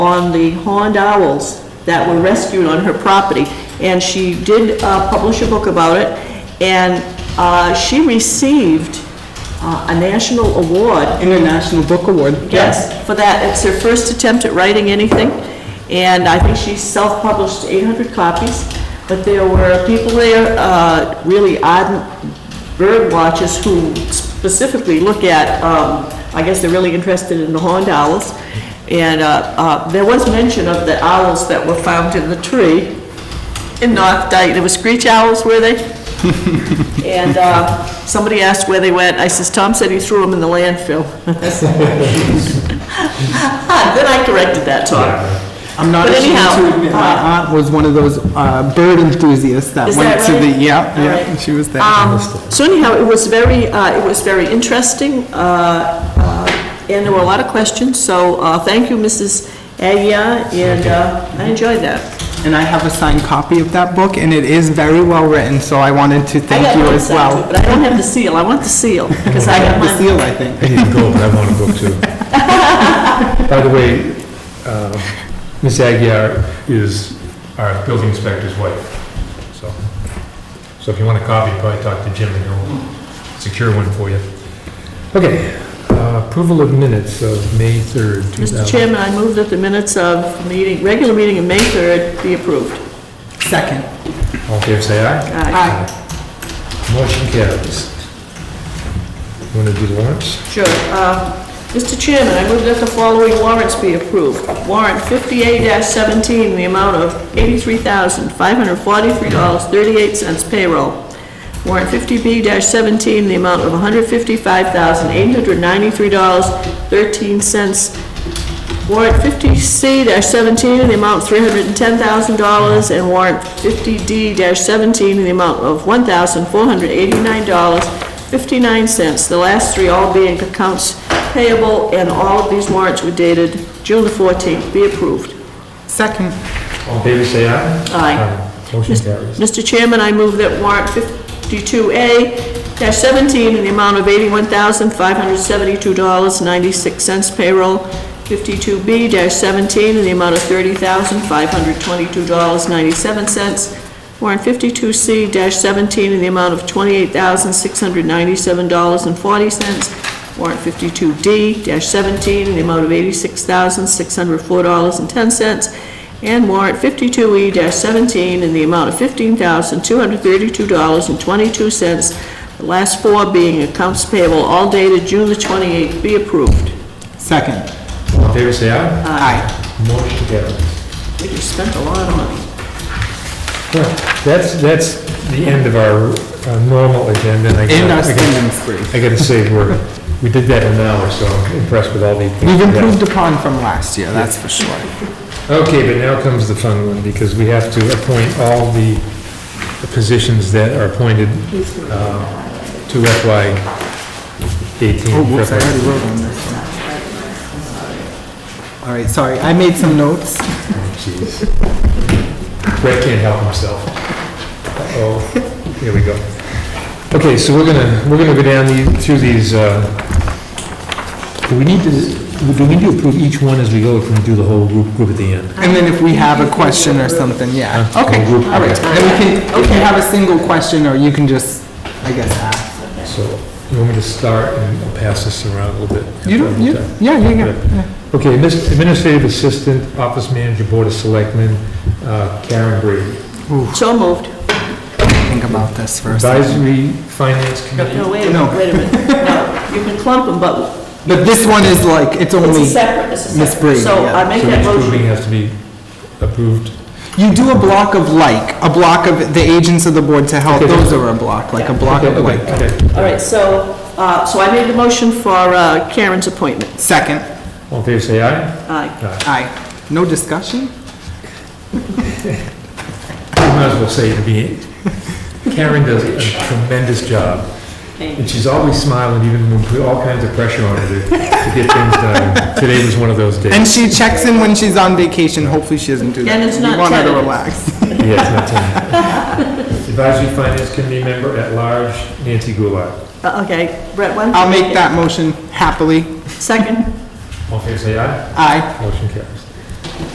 on the horned owls that were rescued on her property. And she did uh, publish a book about it, and uh, she received uh, a national award International Book Award. Yes, for that. It's her first attempt at writing anything, and I think she self-published 800 copies, but there were people there, uh, really ardent bird watchers who specifically look at, um, I guess they're really interested in the horned owls, and uh, uh, there was mention of the owls that were found in the tree in North Dyke. There were screech owls, were they? And uh, somebody asked where they went. I says, Tom said he threw them in the landfill. Ah, Then I corrected that, Tom. I'm not But ashamed anyhow, to admit, my aunt was one of those uh, bird enthusiasts that Is went that to the, right? yeah, All yeah, right. she was there. Um, So anyhow, it was very, uh, it was very interesting, uh, uh, and there were a lot of questions, so uh, thank you, Mrs. Aguirre, and uh, I enjoyed that. And I have a signed copy of that book, and it is very well written, so I wanted to I thank got you one as signed well. too, But I don't have the seal. I want the seal, because I I got have the mine. seal, I think. I need to go, but I want to go too. By the way, uh, Ms. Aguirre is our building inspector's wife, so, so if you want a copy, probably talk to Jim and he'll secure one for you. Okay, uh, approval of minutes of May 3rd, 2000. Mr. Chairman, I move that the minutes of meeting, regular meeting of May 3rd be approved. Uh, Second. All in favor, say aye. Aye. Motion carries. You Want to do warrants? Sure. Uh, Mr. Chairman, I move that the following warrants be approved. Warrant 58-17, the amount of $83,543.38 payroll. Warrant 50B-17, the amount of $155,893.13 Warrant fifty C seventeen in the amount three hundred and ten thousand dollars, and warrant fifty D seventeen in the amount of one thousand four hundred eighty-nine dollars, fifty-nine cents. The last three all being accounts payable, and all of these warrants were dated June the fourteenth. Be approved. Second. All in favor, say aye. Aye. Motion carries. Mr. Chairman, I move that warrant 52A-17 in the amount of $81,572.96 payroll, 52B-17 in the amount of $30,522.97, warrant 52C-17 in the amount of $28,697.40, warrant 52D-17 in the amount of $86,604.10, and warrant 52E-17 in the amount of $15,232.22, the last four being accounts payable, all dated June the 28th, be approved. Second. All in favor, say aye. Aye. Motion carries. We just spent a lot of money. That's, that's the end of our uh, normal agenda. and I gotta- And I our gotta- spending spree. I gotta say, we're, we did that in an hour, so I'm impressed with all the things. We've we got. improved upon from last year, that's for sure. Okay, but now comes the fun one, because we have to appoint all the positions that are appointed uh, to FY eighteen. Oh, whoops, I already wrote on this one. All right, sorry, I made some notes. Jeez. Brett can't help himself. Oh, here we go. Okay, so we're gonna, we're gonna go down the- through these, uh, do we need to, do we need to approve each one as we go, or can we do the whole group, group at the end? And then if we have a question or something, yeah. Huh? Okay, Whole group, all right. Then we can, if you have a single question, or you can just, I guess, ask. So, you want me to start and I'll pass this around a little bit? You don't, you, yeah, yeah, yeah. yeah. Okay, Miss- administrative assistant, office manager, board of selectmen, uh, Karen Brady. So moved. Think about this for a second. Advisory finance committee. No, wait a No. minute, wait a minute. No, you can clump them, but But this one is like, it's it's a only, separate, it's a Miss separate. Brady, So yeah. I make So that each motion. grouping has to be approved. you do a block of like, a block of the agents of the board to help, Okay. those are a block, like a block of Okay, like. okay. All right, so, uh, so I made the motion for uh, Karen's appointment. Uh, Second, All in favor, say aye. Aye. Aye. aye. No discussion? You might as well say to me, Karen does a tremendous job, and she's always smiling even when we put all kinds of pressure on her to to get things done. Today was one of those And days. she checks in when she's on vacation, hopefully she doesn't do that. And it's not We want her to tentative. relax. Yeah, it's not ten. Advisory Finance Committee member at large, Nancy Goulart. Uh, Okay, Brett, why don't you? I'll make that motion happily. Second? All in favor, say aye. Aye. Motion carries.